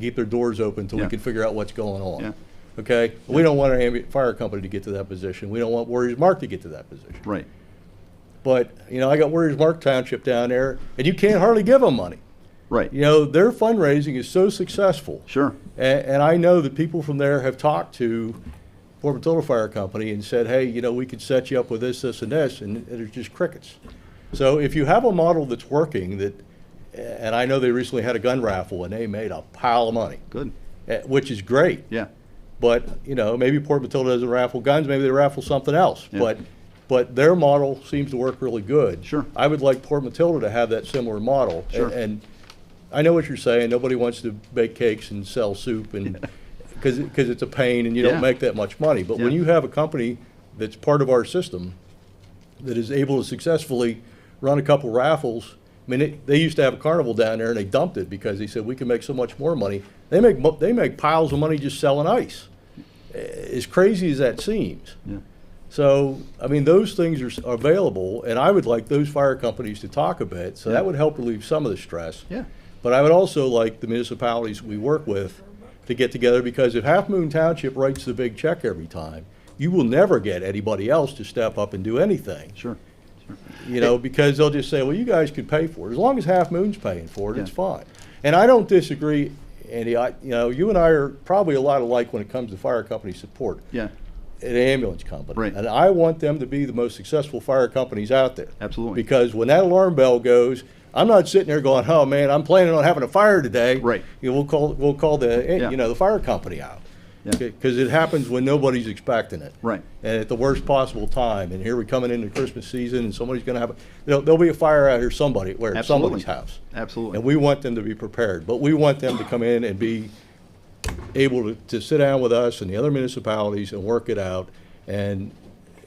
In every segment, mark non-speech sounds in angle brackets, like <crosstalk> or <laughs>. keep their doors open until we Yeah. can figure out what's going on. Yeah. Okay? We don't want our ambulance fire company to get to that position. We don't want Warriors Mark to get to that position. Right. But, you know, I got Warriors Mark Township down there, and you can't hardly give them money. Right. You know, their fundraising is so successful. Sure. And, and I know that people from there have talked to Fort Matilda Fire Company and said, hey, you know, we could set you up with this, this, and this, and there's just crickets. So if you have a model that's working that, and I know they recently had a gun raffle and they made a pile of money, Good. eh, which is great. Yeah. But, you know, maybe Port Matilda doesn't raffle guns, maybe they raffle something else. Yeah. But, but their model seems to work really good. Sure. I would like Port Matilda to have that similar model. Sure. And- And I know what you're saying, nobody wants to bake cakes and sell soup and, because, because it's a pain and you Yeah. don't make that much money. But when Yeah. you have a company that's part of our system, that is able to successfully run a couple raffles, I mean, they, they used to have a carnival down there and they dumped it because they said, we can make so much more money. They make, mo- they make piles of money just selling ice, eh, as crazy as that seems. Yeah. So, I mean, those things are s- are available, and I would like those fire companies to talk a bit, so Yeah. that would help relieve some of the stress. Yeah. But I would also like the municipalities we work with to get together, because if Half Moon Township writes the big check every time, you will never get anybody else to step up and do anything. Sure. You know, because they'll just say, well, you guys could pay for it. As long as Half Moon's paying for it, it's Yeah. fine. And I don't disagree, Andy, I, you know, you and I are probably a lot alike when it comes to fire company support Yeah. an ambulance company. Right. And I want them to be the most successful fire companies out there. Absolutely. Because when that alarm bell goes, I'm not sitting there going, "Oh man, I'm planning on having a fire today." Right. You know, we'll call we'll call the eh, Yeah. you know the fire company out. Yeah. Because it happens when nobody's expecting it. Right. And at the worst possible time. And here we're coming into Christmas season, and somebody's going to have a, there'll, there'll be a fire out here somebody where at Absolutely. somebody's house. Absolutely. And we want them to be prepared, but we want them to come in and be able to, to sit down with us and the other municipalities and work it out. And,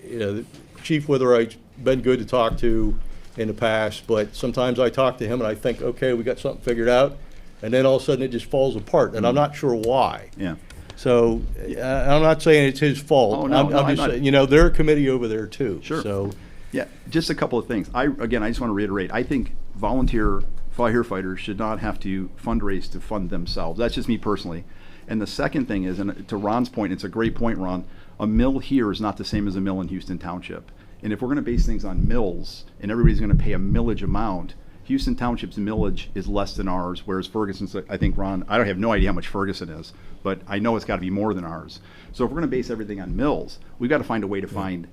you know, Chief Witherite's been good to talk to in the past, but sometimes I talk to him and I think, okay, we got something figured out, and then all of a sudden it just falls apart, and I'm not sure why. Yeah. So, uh, I'm not saying it's his fault. Oh, no, I'm- no, I'm I'm just not- saying, You know, they're a committee over there too. Sure. So, Yeah, just a couple of things. I, again, I just want to reiterate, I think volunteer firefighters should not have to fundraise to fund themselves. That's just me personally. And the second thing is, and to Ron's point, it's a great point, Ron, a mill here is not the same as a mill in Houston Township. And if we're going to base things on mills and everybody's going to pay a millage amount, Houston Township's millage is less than ours, whereas Ferguson's, I think, Ron, I don't have no idea how much Ferguson is, but I know it's got to be more than ours. So if we're going to base everything on mills, we've got to find a way to find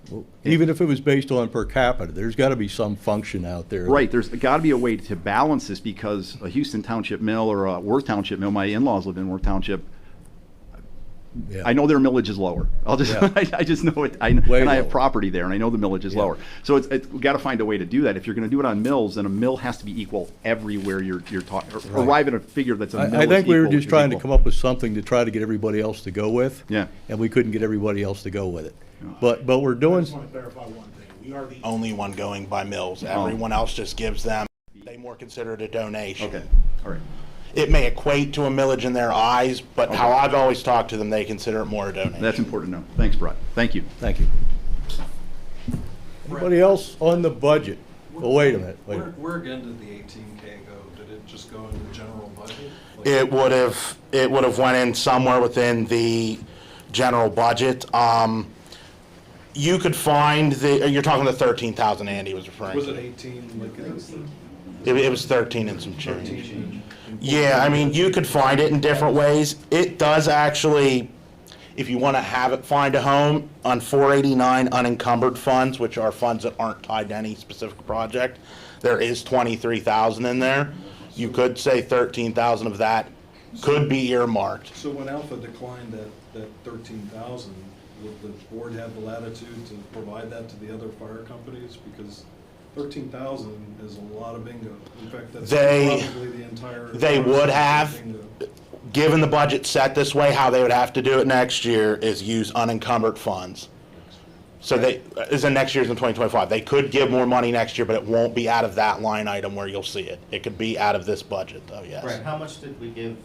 even if it was based on per capita, there's gotta be some function out there. Right, there's got to be a way to balance this because a Houston Township mill or a Worth Township mill, my in-laws live in Worth Township. Yeah. I know their millage is lower. I'll just, Yeah. <laughs> I, I just know it. I, Way and I have lower. property there, and I know the millage is Yeah. lower. So it's, it's got to find a way to do that. If you're going to do it on mills, then a mill has to be equal everywhere you're you're talking. Right. Arrive at a figure that's a mill. I, I is think we were equal- just is trying to equal. come up with something to try to get everybody else to go with. Yeah. And we couldn't get everybody else to go with it. But, but we're doing, just want to clarify one thing. We are the Oh. only one going by mills. Everyone else just gives them, they more consider it a donation. Okay, all right. It may equate to a millage in their eyes, but how I've always talked to them, they consider it more a donation. That's important to know. Thanks, Brett. Thank you. thank you. Anybody else on the budget? Well, wait a minute, wait a Where, minute. where again did the eighteen K go? Did it just go into the general budget? Like- It would have, it would have went in somewhere within the general budget. Um, you could find the, you're talking the thirteen thousand Andy was referring to. Was it eighteen, like, it was It, it was thirteen and some change. eighteen? Yeah, I mean, you could find it in different ways. It does actually, if you want to have it find a home, on 489 unencumbered funds, which are funds that aren't tied to any specific project, there is 23,000 in there. You could say 13,000 of that could be earmarked. So when Alpha declined that, that thirteen thousand, would the board have the latitude to provide that to the other fire companies? Because thirteen thousand is a lot of bingo. In fact, that's They- probably the entire. they would have. Bingo. Given the budget set this way, how they would have to do it next year is use unencumbered funds. So they, is in next year's in 2025. They could give more money next year, but it won't be out of that line item where you'll see it. It could be out of this budget, though, yes. Right, how much did we give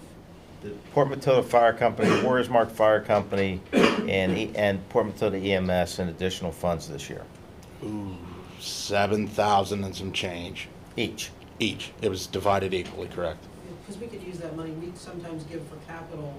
the Port Matilda Fire Company, Warriors Mark Fire Company, and, E- and Port Matilda EMS in additional funds this year? Seven thousand and some change Each? each. It was divided equally, correct? because we could use that money, we sometimes give for capital